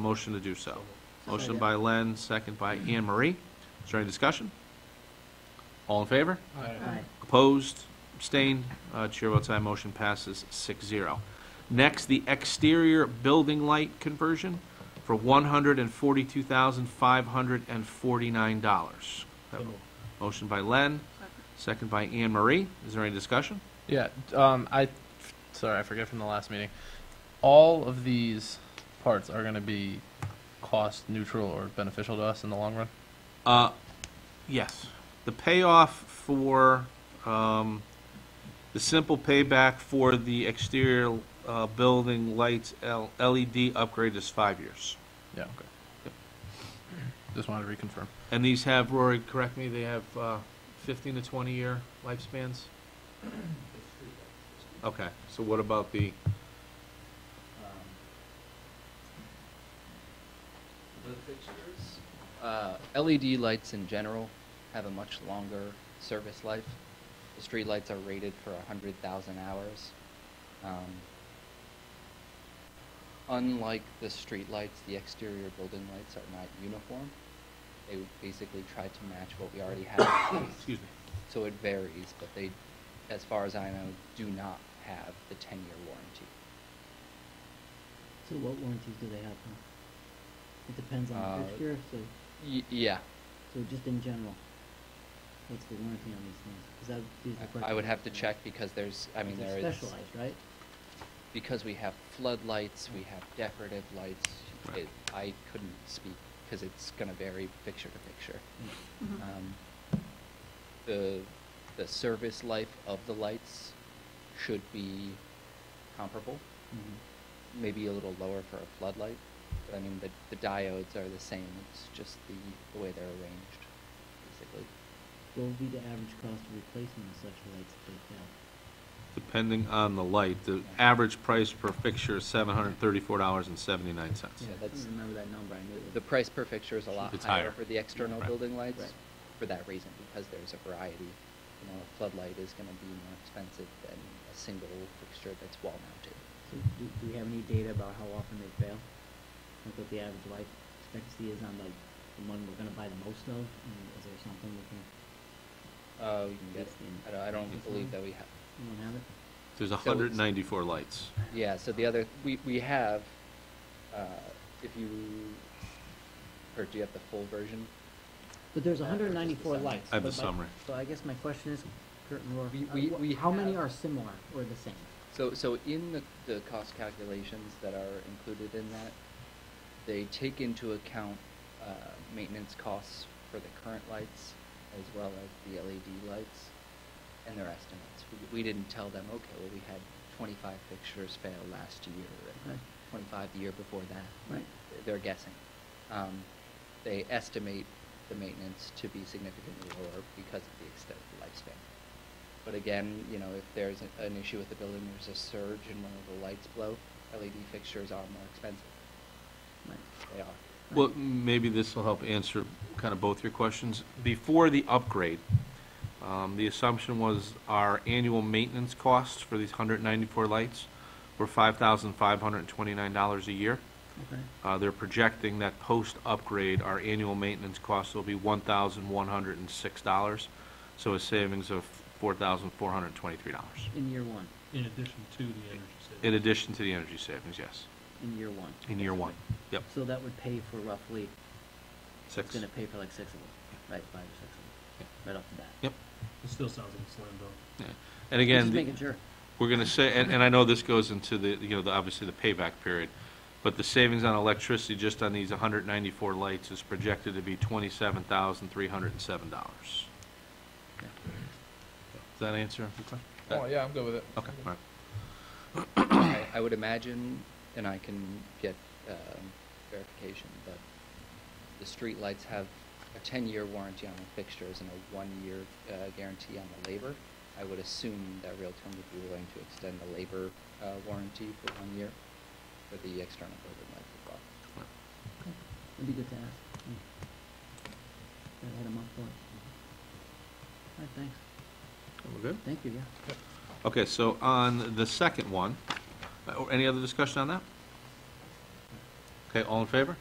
Motion to do so. Motion by Len, second by Anne Marie. Is there any discussion? All in favor? Aye. Opposed? Abstained? Uh, Chair votes aye, motion passes 6-0. Next, the exterior building light conversion for one hundred and forty-two thousand, five hundred and forty-nine dollars. Motion by Len, second by Anne Marie. Is there any discussion? Yeah, um, I, sorry, I forget from the last meeting. All of these parts are gonna be cost neutral or beneficial to us in the long run? Uh, yes. The payoff for, um, the simple payback for the exterior, uh, building lights L- LED upgrade is five years. Yeah, okay. Yep. Just wanted to reconfirm. And these have, Rory, correct me, they have, uh, fifteen to twenty-year lifespans? Okay, so what about the, Um, The fixtures, uh, LED lights in general have a much longer service life. The street lights are rated for 100,000 hours. Um, unlike the street lights, the exterior building lights are not uniform. They would basically try to match what we already have in place. excuse me, So it varies, but they, as far as I know, do not have the 10-year warranty. So what warranties do they have now? It depends on Uh, the fixture, so, Y- yeah, so just in general, what's the warranty on these things? 'Cause that would be the I I question. would have to check because there's, I mean, They're there is. Specialized, right? because we have floodlights, we have decorative lights, Right. it, I couldn't speak, because it's gonna vary picture to picture. Um, The, the service life of the lights should be comparable, Mhm. maybe a little lower for a floodlight, but I mean, the, the diodes are the same, it's just the, the way they're arranged, basically. What would be the average cost of replacement of such lights if they fail? depending on the light, the average price per fixture is seven hundred and thirty-four dollars and seventy-nine cents. Yeah, I that's- couldn't remember that number, I knew it was. The price per fixture is a lot It's higher. higher for the external Right. building lights Right. for that reason, because there's a variety. You know, a floodlight is gonna be more expensive than a single fixture that's wall mounted. So do, do we have any data about how often they fail? Like what the average life expectancy is on like the one we're gonna buy the most of, and is there something we can, Uh, we Mm, can get, Mm-hmm. that's the- I don't, I don't believe that we have, you don't have it? There's it's- hundred and ninety-four lights. yeah, so the other, we, we have, uh, if you, or do you have the full version? But there's Uh, or just hundred the and ninety-four summary? lights. I have the but my- summary. So I guess my question is, Kurt and Roar, We- uh, we- wha- we how many have- are similar or the same? So, so in the, the cost calculations that are included in that, they take into account, uh, maintenance costs for the current lights as well as the LED lights and their estimates. We, we didn't tell them, okay, well, we had twenty-five fixtures fail last year Right. and twenty-five the year before that. Right. They're guessing. Um, they estimate the maintenance to be significantly lower because of the extended lifespan. But again, you know, if there's a- an issue with the building, there's a surge and one of the lights blow, LED fixtures are more expensive. Right. They are. Well, maybe this will help answer kind of both your questions. Before the upgrade, um, the assumption was our annual maintenance costs for these 194 lights were $5,529 a year. Okay. Uh, They're projecting that post-upgrade, our annual maintenance costs will be $1,106, so a savings of $4,423, In year one, In addition to the energy in savings. addition to the energy savings, yes, in year one. in year one. Yep, So that would pay for roughly, it's six. gonna pay for like six of them, right, five or six of them, right off the bat. Yep. It still sounds like a slam dunk. yeah. And Just again. the- making sure. We're gonna say, and, and I know this goes into the, you know, the, obviously the payback period, but the savings on electricity just on these hundred ninety-four lights is projected to be twenty-seven thousand, three hundred and seven dollars. Does that answer? your question? Oh, yeah, I'm good with it. Okay, all right. I, I would imagine, and I can get um, verification, but the street lights have a ten-year warranty on the fixtures and a one-year uh, guarantee on the labor. I would assume that Realtor would be willing to extend the labor uh, warranty for one year for the external building lights as well. It'd be good to ask. Mm. Gotta hit 'em up for it. All right, thanks. We're good? Thank you, yeah. Okay, so on the second one, uh, or any other discussion on that? Okay, all in favor?